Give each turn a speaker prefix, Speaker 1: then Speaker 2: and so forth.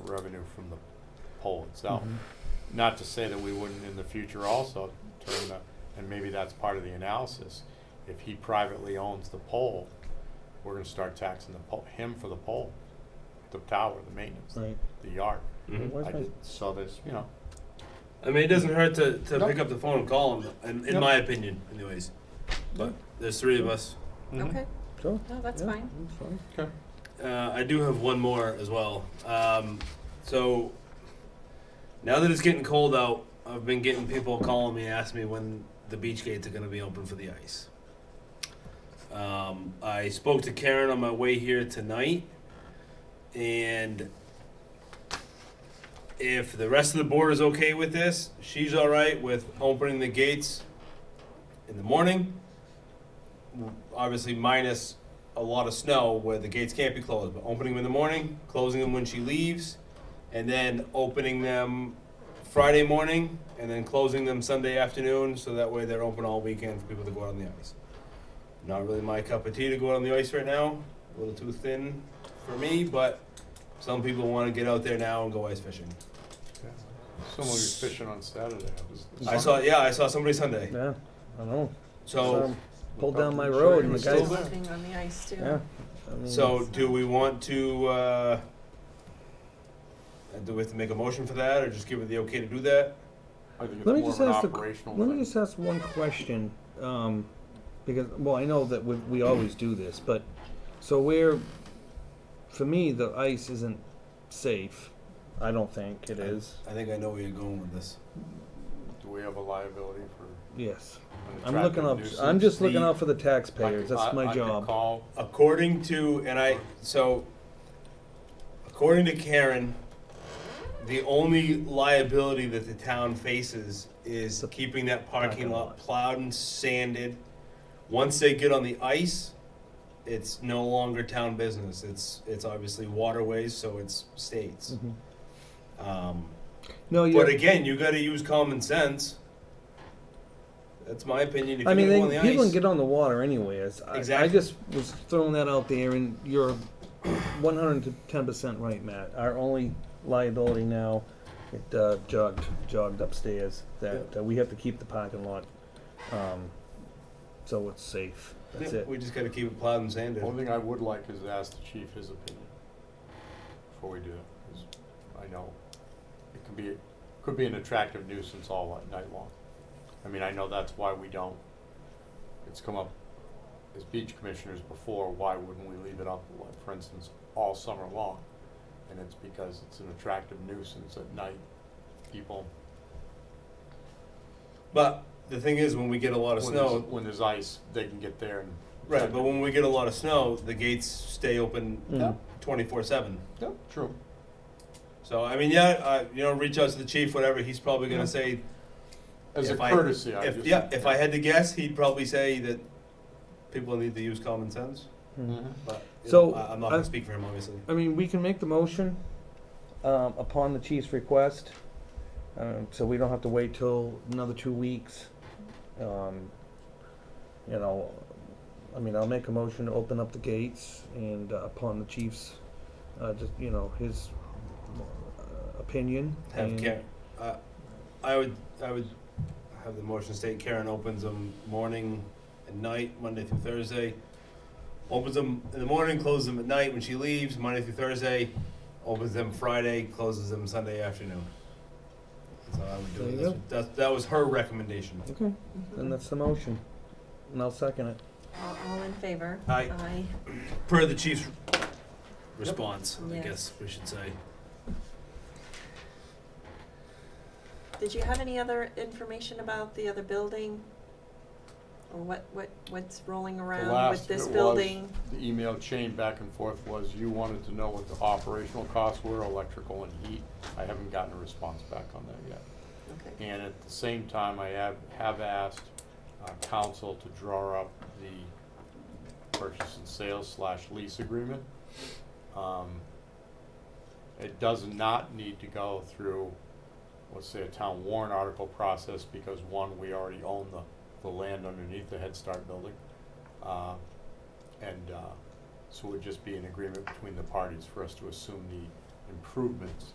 Speaker 1: revenue from the pole itself.
Speaker 2: Mm-hmm.
Speaker 1: Not to say that we wouldn't in the future also turn the, and maybe that's part of the analysis. If he privately owns the pole, we're gonna start taxing the pole, him for the pole, the tower, the maintenance,
Speaker 2: Right.
Speaker 1: the yard.
Speaker 3: Mhm.
Speaker 2: Where's
Speaker 1: I
Speaker 2: my-
Speaker 1: just, so there's, you know,
Speaker 3: I mean, it doesn't hurt to, to
Speaker 1: No.
Speaker 3: pick up the phone and call them, in, in
Speaker 1: No.
Speaker 3: my opinion, anyways. But there's three of us.
Speaker 1: Mhm.
Speaker 4: Okay,
Speaker 2: Sure.
Speaker 4: no, that's
Speaker 2: Mm-hmm. Yeah,
Speaker 4: fine.
Speaker 2: that's fine.
Speaker 1: Mm-hmm. Okay.
Speaker 3: Uh, I do have one more as well. Um, so now that it's getting cold out, I've been getting people calling me, asking me when the beach gates are going to be open for the ice. Um, I spoke to Karen on my way here tonight, and if the rest of the board is okay with this, she's all right with opening the gates in the morning. Obviously, minus a lot of snow where the gates can't be closed, but opening them in the morning, closing them when she leaves, and then opening them Friday morning, and then closing them Sunday afternoon, so that way they're open all weekend for people to go out on the ice. Not really my cup of tea to go out on the ice right now, a little too thin for me, but some people want to get out there now and go ice fishing.
Speaker 1: Someone was fishing on Saturday. was-
Speaker 3: I saw, yeah, I saw somebody Sunday.
Speaker 2: Yeah, I know.
Speaker 3: So,
Speaker 2: Um, Pulled down my
Speaker 1: I'm sure
Speaker 2: road
Speaker 1: he
Speaker 2: and
Speaker 1: was
Speaker 2: the
Speaker 1: still
Speaker 2: guys-
Speaker 1: there.
Speaker 4: Walking on the ice too.
Speaker 2: yeah. I mean,
Speaker 3: so do we want to? Uh, do we have to make a motion for that, or just give it the okay to do that?
Speaker 1: I think it's
Speaker 2: Let me
Speaker 1: more
Speaker 2: just
Speaker 1: of an
Speaker 2: ask the-
Speaker 1: operational
Speaker 2: Let me
Speaker 1: thing.
Speaker 2: just ask one question, um, because, well, I know that we, we always do this, but, so where, for me, the ice isn't safe. I don't think it is.
Speaker 3: I think I know where you're going with this.
Speaker 1: Do we have a liability for?
Speaker 2: Yes.
Speaker 1: an
Speaker 2: I'm looking
Speaker 1: attractive
Speaker 2: up, I'm
Speaker 1: nuisance?
Speaker 2: just looking
Speaker 3: The-
Speaker 2: out for the
Speaker 1: I could-
Speaker 2: taxpayers.
Speaker 1: I-
Speaker 2: That's
Speaker 1: I
Speaker 2: my
Speaker 1: could
Speaker 2: job.
Speaker 1: call
Speaker 3: According to, and I, so, according to Karen, the only liability that the town faces is
Speaker 2: The
Speaker 3: keeping that parking
Speaker 2: parking
Speaker 3: lot
Speaker 2: lot.
Speaker 3: plowed and sanded. Once they get on the ice, it's no longer town business. It's, it's obviously waterways, so it's states.
Speaker 2: Mhm.
Speaker 3: Um,
Speaker 2: No,
Speaker 3: but
Speaker 2: you,
Speaker 3: again, you gotta use common sense. That's my opinion. If
Speaker 2: I
Speaker 3: you
Speaker 2: mean,
Speaker 3: go
Speaker 2: they,
Speaker 3: on the
Speaker 2: people
Speaker 3: ice-
Speaker 2: can get on the water anyways. I, I
Speaker 3: Exactly.
Speaker 2: just was throwing that out there and you're one hundred and ten percent right, Matt. Our only liability now, it uh, jogged, jogged upstairs, that uh, we have to keep the parking lot, um, so it's safe. That's
Speaker 3: Yeah,
Speaker 2: it.
Speaker 3: We just gotta keep it plowed and sanded.
Speaker 1: One thing I would like is to ask the chief his opinion before we do it, 'cause I know it could be, could be an attractive nuisance all li- night long. I mean, I know that's why we don't, it's come up as beach commissioners before, why wouldn't we leave it up, like, for instance, all summer long? And it's because it's an attractive nuisance at night, people,
Speaker 3: But the thing is, when we get a lot of
Speaker 1: when there's,
Speaker 3: snow,
Speaker 1: when there's ice, they can get there and.
Speaker 3: right? But when we get a lot of snow, the gates stay open
Speaker 2: Mm.
Speaker 1: Yeah,
Speaker 3: twenty four seven.
Speaker 1: yeah, true.
Speaker 3: So I mean, yeah, uh, you know, reach out to the chief, whatever. He's probably gonna
Speaker 1: Yeah.
Speaker 3: say,
Speaker 1: As a
Speaker 3: If I-
Speaker 1: courtesy, I
Speaker 3: if
Speaker 1: just.
Speaker 3: yeah, if I had to guess, he'd probably say that people need to use common sense.
Speaker 2: Mhm.
Speaker 1: Mm-hmm.
Speaker 3: But you
Speaker 2: So,
Speaker 3: know, I, I'm not gonna
Speaker 2: I-
Speaker 3: speak for him, obviously.
Speaker 2: I mean, we can make the motion, um, upon the chief's request, um, so we don't have to wait till another two weeks. Um, you know, I mean, I'll make a motion to open up the gates and uh, upon the chief's, uh, just, you know, his uh, opinion.
Speaker 3: Have
Speaker 2: and-
Speaker 3: Karen. Uh, I would. I would have the motion state. Karen opens them morning and night, Monday through Thursday. Opens them in the morning, closes them at night when she leaves, Monday through Thursday. Opens them Friday, closes them Sunday afternoon. That's how I would do
Speaker 2: There
Speaker 3: it.
Speaker 2: you
Speaker 3: That's-
Speaker 2: go.
Speaker 3: That, that was her recommendation.
Speaker 2: Okay, then
Speaker 4: Mhm.
Speaker 2: that's the motion, and I'll second it.
Speaker 4: All, all in favor?
Speaker 3: Aye.
Speaker 4: Aye.
Speaker 3: Per the chief's response, I
Speaker 4: Yeah.
Speaker 3: guess we should say.
Speaker 4: Did you have any other information about the other building? Or what, what, what's rolling around
Speaker 1: last
Speaker 4: with this
Speaker 1: bit was-
Speaker 4: building?
Speaker 1: The email chain back and forth was you wanted to know what the operational costs were, electrical and heat. I haven't gotten a response back on that yet.
Speaker 4: Okay.
Speaker 1: And at the same time, I have, have asked uh, council to draw up the purchase and sales slash lease agreement. Um, It does not need to go through, let's say, a town warrant article process, because one, we already own the, the land underneath the Head Start building. Uh, And uh, so it would just be an agreement between the parties for us to assume the improvements